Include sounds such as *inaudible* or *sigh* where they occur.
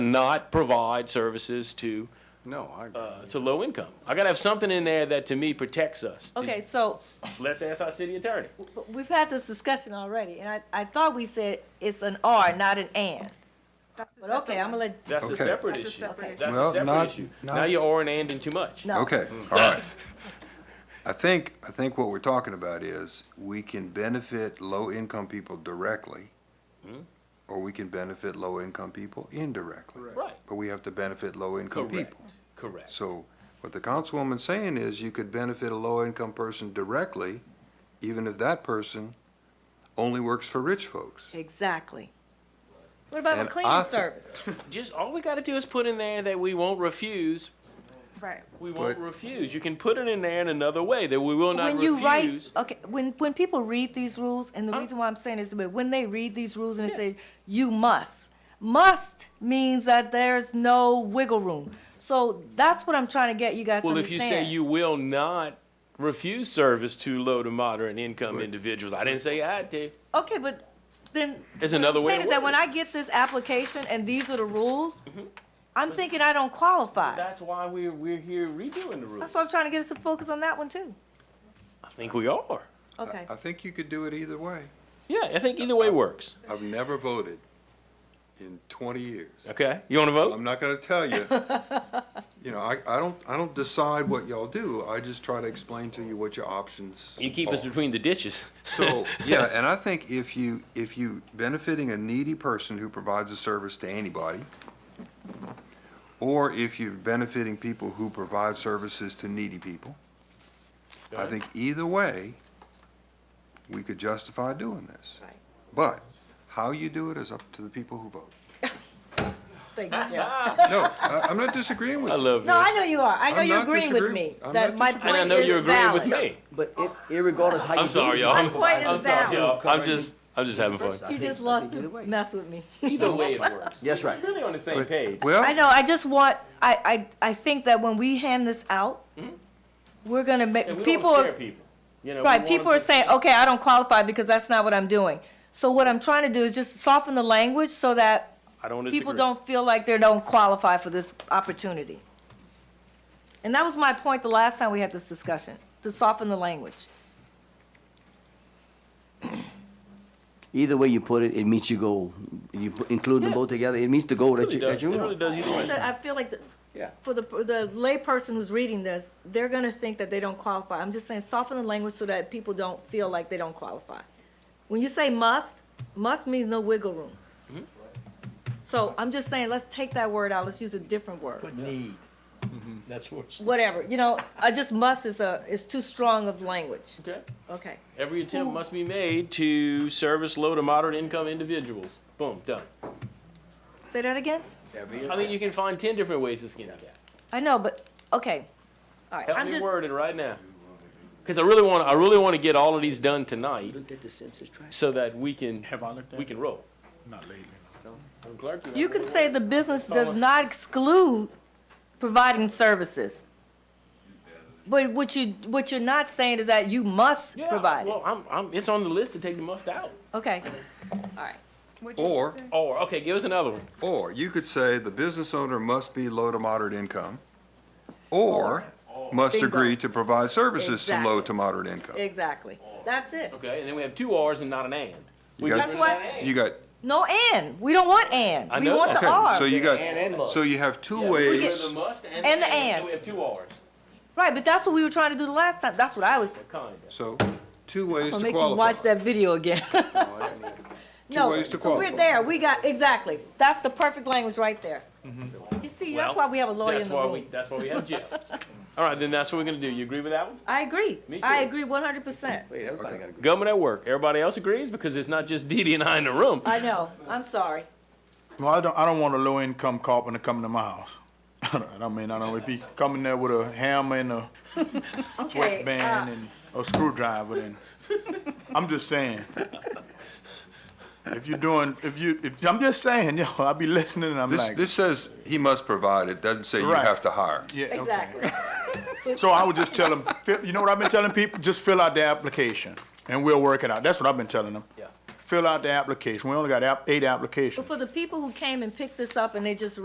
not provide services to, No, I, uh, to low income. I gotta have something in there that to me protects us. Okay, so Let's ask our city attorney. but we've had this discussion already, and I, I thought we said it's an R, not an and. But okay, I'm gonna let, That's a Okay. separate That's a issue. separate That's a Well, separate not- issue. not- Now you're or and anding too much. no. Okay, all right. I think, I think what we're talking about is we can benefit low-income people directly, or we can benefit low-income people indirectly. Right. But we have to benefit low-income Correct. people. Correct. So what the councilwoman's saying is you could benefit a low-income person directly, even if that person only works for rich folks. Exactly. What about the And cleaning I- service? Just, all we gotta do is put in there that we won't refuse, Right. we won't But- refuse. You can put it in there in another way, that we will not When you write, refuse. okay, when, when people read these rules, and the Huh? reason why I'm saying this, but when they read these rules and they Yeah. say, you must, must means that there's no wiggle room. So that's what I'm trying to get you guys to Well, if you say understand. you will not refuse service to low to moderate income individuals, I didn't say I did. Okay, but then. There's what I'm another way saying to Is that word when it. Mm-hmm. I get this application and these are the rules, I'm thinking I don't qualify. That's why we're, we're here redoing the That's rules. why I'm trying to get us to focus on that one too. I think we are. Okay. I think you could do it either way. Yeah, I think either way works. I've never voted in twenty years. Okay, you wanna vote? I'm not gonna tell you. You know, I, I don't, I don't decide what y'all do, I just try to explain to you what your options You keep us are. between the ditches. Oh. So, yeah, and I think if you, if you benefiting a needy person who provides a service to anybody, or if you're benefiting people who provide services to needy people, I think either way, we could justify doing this. Right. But how you do it is up to the people *laughs* who vote. Thank you, Jeff. No, I, I'm not disagreeing *laughs* with I you. love No, this. I know you are. I know I'm you're not agreeing with me. disagreeing. I'm That not my disagreeing. point And I know is you're agreeing with valid. me. But ir- irregardless how you do it. I'm sorry, you y'all. can I'm- My point provide is it. valid. Y'all, I'm just, I'm just having fun. I You think- just I loves think to either way. mess with me. Either way it works. That's right. We're Really on the same page. Well. I know, I just want, I, I, I think that when we hand this out, we're gonna And make, Hmm? we don't people, wanna scare are- people. You know, we right, want people them are to- saying, okay, I don't qualify because that's not what I'm doing. So what I'm trying to do is just soften the language so that I don't people disagree. don't feel like they don't qualify for this opportunity. And that was my point the last time we had this discussion, to soften the language. Either way you put it, it meets your goal. You put- include them Yeah. both together, it meets the goal that Really you, that does, it you really want. does either way. I feel like the, Yeah. for the, the layperson who's reading this, they're gonna think that they don't qualify. I'm just saying soften the language so that people don't feel like they don't qualify. When you say must, must means no wiggle room. So I'm just saying, let's take that word out, let's use a different word, need. That's worse. whatever, you know, I just must is a, is too strong of language, Okay. okay. Every attempt must be made to service low to moderate income individuals. Boom, done. Say that again? I mean, you can find ten different ways to skin a cat. I know, but, okay, all right, Help I'm me just, word it right now. Cause I really wanna, I really wanna get all of these done tonight Looked at the census tract. so that we can, Have I looked at we it? can roll. Not lately. Madam Clerk, you can say the business does not exclude providing services. But what you, what you're not saying is that you must Yeah, provide it, Well, I'm, I'm, it's on the list to take the must out. okay, all right. What'd you Or, say? Or, okay, give us another one. Or you could say the business owner must be low to moderate income, or must Bingo. agree to provide services to low Exactly. to moderate income. Exactly. That's it. Okay, and then we have two Rs and not an and. We got- got That's rid of why- that and. You got, No and. We don't want and. I we know want that. the okay, R. so you And- and got, must. so you have two We get rid of ways, the must and, And the and. Then we have two Rs. right, but that's what we were trying to do the last time. That's what I was What kind? so, two ways gonna to make you watch qualify. that video *laughs* again. *laughs* no, ways to so qualify. we're there. We got exactly. That's the perfect language right there. You see, that's Mm-hmm. Well, why we have a lawyer That's in the why room. we, that's why we have *laughs* Jeff. All right, then that's what we're gonna do. You agree with that one? I agree. Me I too. agree 100%. Wait, everybody got a Government at work. Everybody else agrees because it's not just Dee Dee and I in the room. I know. I'm sorry. Well, I don't, I don't want a low-income carpenter coming to my house. *laughs* I don't mean, I don't, if he coming there with a hammer and a Okay. band uh, and a *laughs* screwdriver, then, I'm just saying. If you're doing, if you, if, I'm just saying, yo, I be listening and I'm This, like, this says he must provide, it doesn't say you Right. have to hire. yeah, okay. exactly. So I would just tell them, fill- you know what I've been telling people? Just fill out the application and we'll work it out. That's what I've been telling them. Yeah. Fill out the application. We only got app- eight applications. For the people who came and picked this up and they just